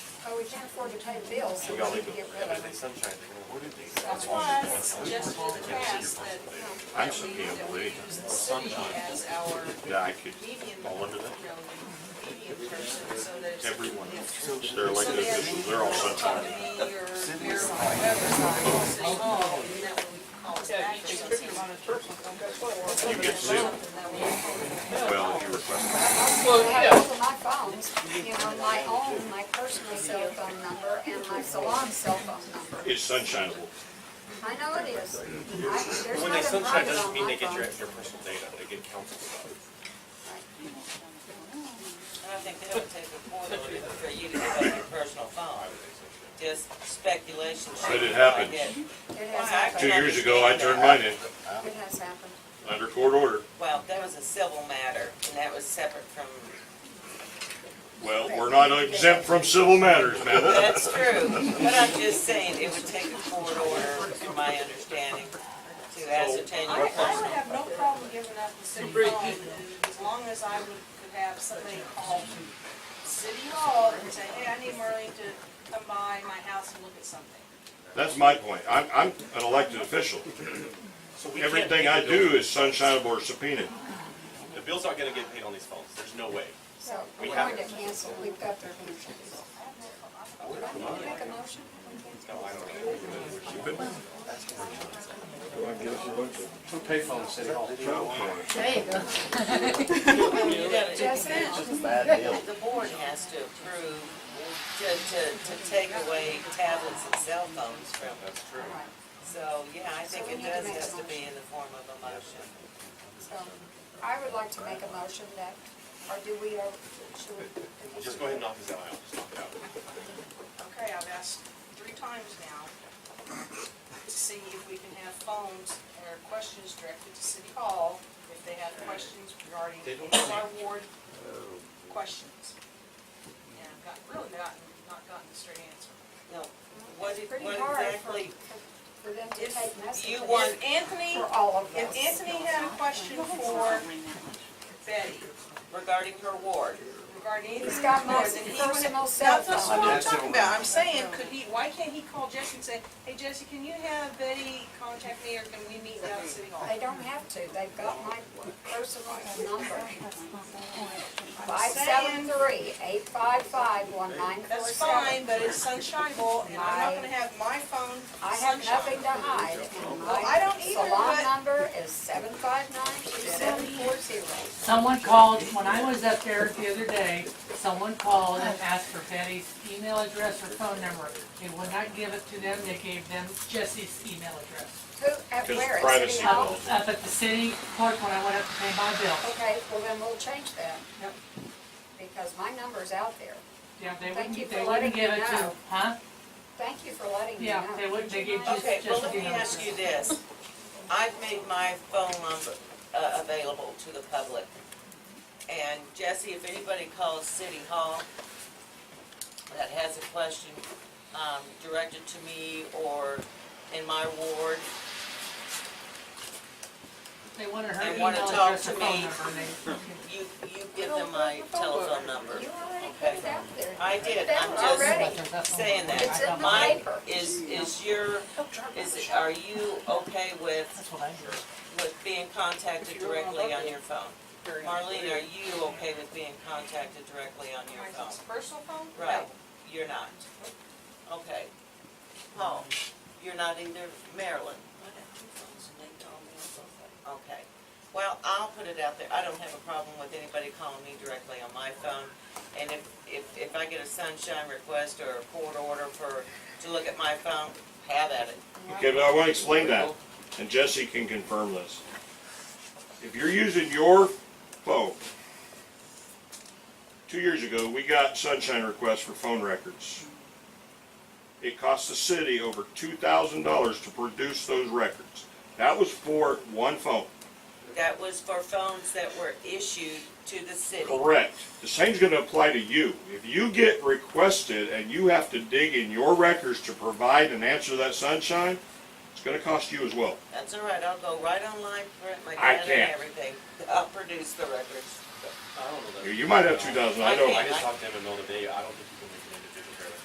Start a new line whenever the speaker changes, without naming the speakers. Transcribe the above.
Oh, we can't afford to pay bills, so
We
we
all
need
need
to
to,
get rid
that was
of
the
it.
sunshine thing, what did they?
That's why I suggested in the past that, you know,
I
that
should
we,
be able
that
to
we
leave.
use the city as our
Yeah, I could,
median, you
all
know,
under that.
median person, so that if.
Everyone,
if
they're elected
somebody has
officials, they're all
to talk to
sunshine.
me or Mayor or whoever, or City Hall, and that would always back for something.
You get zero.
That would-
Well, if you request,
I have both of my phones, you know, my own, my personal cell phone number and my salon cell phone number.
it's sunshineable.
I know it is. I- There's
When they
nothing
sunshine
private
doesn't
on
mean
my
they get
phone.
your extra personal data, they get council stuff.
And I think that would take a point of it for you to give up your personal phone. Just speculation.
But it
shit like
happens.
that.
It has happened,
Two years ago, I turned mine in,
it has happened.
under court order.
Well, that was a civil matter, and that was separate from,
Well, we're not exempt from civil matters, man.
that's true. But I'm just saying, it would take a court order, in my understanding, to ascertain
I,
your
I would
personal.
have no problem giving up the city hall, as long as I would, could have somebody call city hall and say, hey, I need Marlene to come by my house and look at something.
That's my point. I'm, I'm an elected official.
So we can't pay
Everything
the
I
bill.
do is sunshineable or subpoenaed.
The bill's not gonna get paid on these phones, there's no way.
So we're
We
going
have-
to cancel, we've got their motions. Do I need to make a motion?
Who pay phone city hall?
There you go.
You gotta-
Just now.
The board has to approve, to, to, to take away tablets and cell phones from them.
That's true.
Right.
So, yeah, I think
So we
it
need to
does
make a
has to be
motion.
in the form of a motion.
So I would like to make a motion that, or do we, uh, should we?
Just go ahead and knock this out, I'll just knock it out.
Okay, I've asked three times now to see if we can have phones or questions directed to city hall if they have questions regarding any of our ward questions. And I've got, really gotten, not gotten a straight answer.
No, what,
It's
if-
pretty
what
hard for,
exactly,
for them to take
if
messages
you
for
want
Anthony,
all of
if
us.
Anthony had a question for Betty
regarding her ward,
regarding anything.
He's got my
then he would-
personal cell
That's what
phone.
I'm talking about, I'm saying, could he, why can't he call Jesse and say, hey, Jesse, can you have Betty contact me or can we meet down at city hall?
They don't have to, they've got my personal number. Five seven three, eight five five, one nine four
That's
seven.
fine, but it's sunshineable, and I'm not gonna have my phone
I have nothing
sunshine.
to hide, and
I
my
don't either,
salon
but-
number is seven five nine two seven four zero.
Someone called, when I was up there the other day, someone called and asked for Betty's email address or phone number. They would not give it to them, they gave them Jesse's email address.
Who, at
Because
where, at
privacy
City
laws.
Hall?
Up at the city clerk when I went up to pay my bill.
Okay, well then we'll change that.
Yep.
Because my number's out there.
Yeah, they
Thank you
wouldn't,
for
they
letting
wouldn't give
me
it to,
know.
huh?
Thank you for letting me know.
Yeah, they wouldn't, they gave just,
okay,
just the
well,
email
let me
address.
ask you this. I've made my phone number, uh, available to the public. And Jesse, if anybody calls City Hall that has a question, um, directed to me or in my ward,
They wanted her
They
email
wanna talk
address
to
or phone
me.
number, and they,
you, you give them my telephone number.
You already put it out there.
I did,
They
I'm
were
just-
Already.
saying that.
It's in the
Mine
paper.
is, is your, is, it- are you okay with,
That's what I heard.
with being contacted directly on your phone? Marlene, are you okay with being contacted directly on your
My
phone?
personal phone?
Right, you're not. Okay. Paul, you're not either, Marilyn? Okay. Well, I'll put it out there, I don't have a problem with anybody calling me directly on my phone. And if, if, if I get a sunshine request or a court order for, to look at my phone, have at it.
Okay, but I want to explain that, and Jesse can confirm this. If you're using your phone, two years ago, we got sunshine requests for phone records. It cost the city over two thousand dollars to produce those records. That was for one phone.
That was for phones that were issued to the city.
Correct. The same's gonna apply to you. If you get requested and you have to dig in your records to provide and answer that sunshine, it's gonna cost you as well.
That's all right, I'll go right online, print my
I
data and
can't.
everything. I'll produce the records.
I don't know that.
You might have two thousand, I don't.
I just talked to him in the middle of the day, I don't think he